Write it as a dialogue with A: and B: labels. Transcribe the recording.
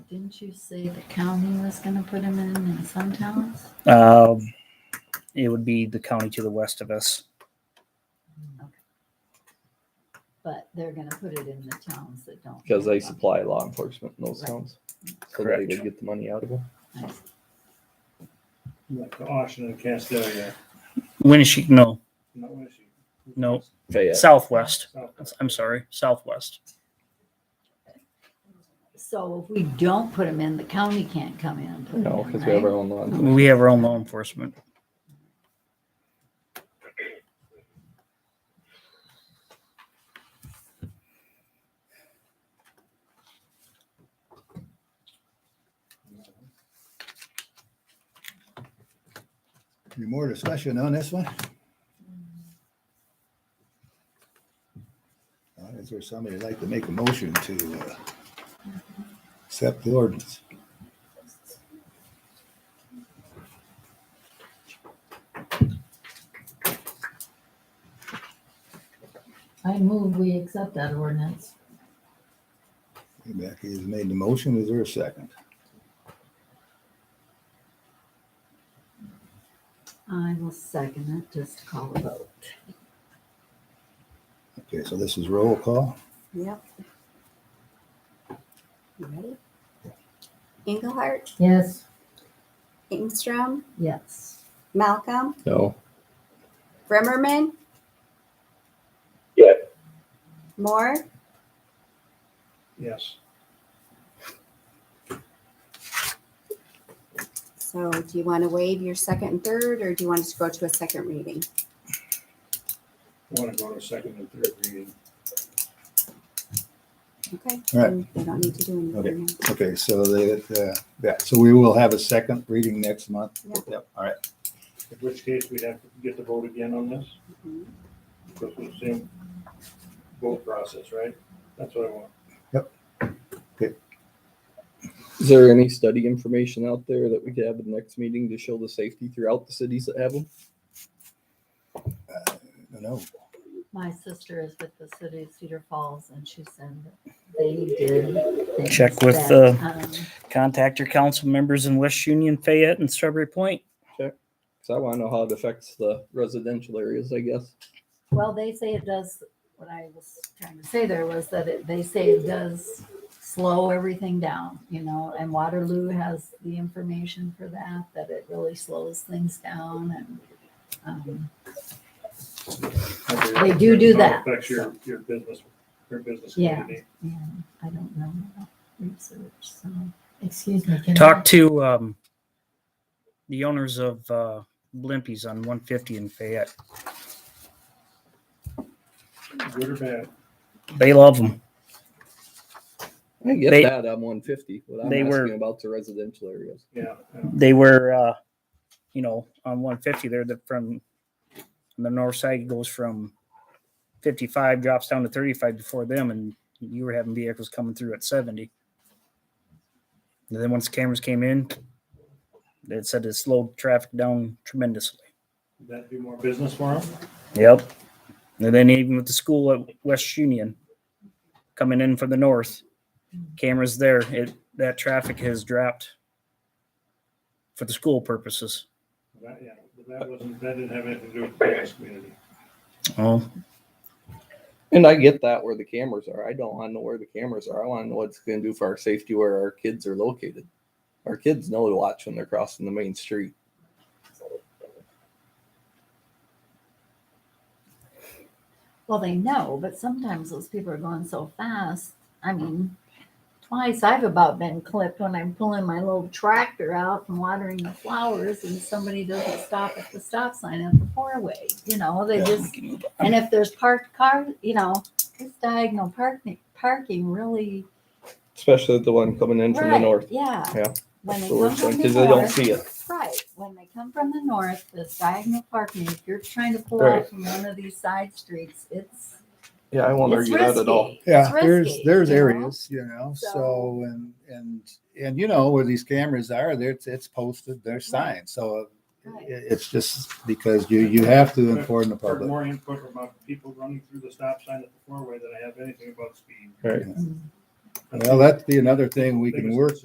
A: Didn't you say the county was gonna put them in in some towns?
B: Um, it would be the county to the west of us.
A: But they're gonna put it in the towns that don't.
C: because they
A: have them.
C: supply law enforcement in those towns. So they
B: Correct.
C: would get the money out of them.
A: Nice.
D: Like the auction of Castelia,
B: Winnebago, no,
D: not Winnebago.
B: No.
C: Fayette.
B: southwest.
D: South.
B: I'm sorry, southwest.
A: So if we don't put them in, the county can't come in and put them
C: No,
A: in,
C: because we have our
A: right?
C: own law. enforcement.
B: We have our own law enforcement.
E: Any more discussion on this one? Uh, Is there somebody that'd like to make a motion to uh, accept the ordinance?
A: I move we accept that ordinance.
E: Becky has made the motion. Is there a second?
A: I will second it, just to call a vote.
E: Okay, so this is roll call.
F: Yep. You ready? Engelhardt,
A: Yes.
F: Ingstrom,
A: Yes.
F: Malcolm,
C: No,
F: Brimmerman.
C: Yeah.
F: Moore,
D: Yes,
F: so do you want to waive your second and third, or do you want us to go to a second reading?
D: want to go to second and third reading.
F: Okay.
E: All right.
F: then We don't need to do
E: Okay.
F: anything. now.
E: Okay, so they, uh, yeah, so we will have a second reading next month.
F: Yep.
E: all right.
D: In which case, we'd have to get the vote again on this,
A: Mm-hmm.
F: Mhm.
D: because it's the same vote process, right? That's what I want.
C: is there any study information out there that we could have at the next meeting to show the safety throughout the cities that have them?
E: Uh, No,
A: My sister is with the city of Cedar Falls and she said that they did. things
B: Check with,
A: that, um,
B: Contact your council members in West Union, Fayette, and Strawberry Point.
C: Because I want to know how it affects the residential areas, I guess.
A: Well, they say it does, what I was trying to say there was that it, they say it does slow everything down, you know, and Waterloo has the information for that, that it really slows things down and, um, They do do
D: How it
A: that,
D: Affects your,
A: so.
D: your business, your business
A: Yeah.
D: community.
A: yeah, I don't know enough research, so.
G: Excuse me, can I,
B: Talk to, um, the owners of, uh, Blimpies on one fifty in Fayette.
D: Good or bad?
B: They love them.
C: I get
B: They-
C: that on 150. What I'm
B: they
C: asking
B: were-
C: about the residential areas.
D: Yeah. yeah.
B: They were, uh, you know, on one fifty, they're the, from, on the north side goes from fifty-five, drops down to thirty-five before them, and you were having vehicles coming through at seventy. And then once cameras came in, it said it slowed traffic down tremendously.
D: That'd be more business for them.
B: Yep. And then even with the school at West Union coming in from the north, cameras there, it that traffic has dropped for the school purposes.
D: That, yeah, but that wasn't, that didn't have anything to do with the business community.
B: Oh,
C: And I get that where the cameras are. I don't want to know where the cameras are. I want to know what it's going to do for our safety where our kids are located. Our kids know to watch when they're crossing the main street.
A: Well, they know, but sometimes those people are going so fast. I mean, twice I've about been clipped when I'm pulling my little tractor out and watering the flowers, and somebody doesn't stop at the stop sign at the four-way. You know, they
E: Yeah.
A: just and if there's parked cars, you know, this diagonal parking parking really
C: Especially the one coming in from the
A: Right,
C: north.
A: Yeah.
C: Yeah,
A: When they
C: the
A: come
C: worst
A: from
C: one,
A: the
C: 'cause they don't
A: north-
C: see it.
A: Right, when they come from the north, this diagonal parking, if you're trying to pull
C: Right.
A: out from one of these side streets, it's
C: Yeah, I won't
A: it's
C: argue that at all.
A: risky.
E: yeah,
A: It's
E: there's,
A: risky,
E: there's
A: you know?
E: areas, you know, so,
A: So-
E: and, and, and you know where these cameras are, there, it's, it's posted, there's
A: Right.
E: signs, so uh,
A: Right.
E: it, it's just because you, you have to
D: But-
E: inform the
D: Heard
E: public.
D: more input about people running through the stop sign at the four-way than I have anything about speed.
C: Right.
E: Mm-hmm. Well, that'd be another thing we can
D: Biggest
E: work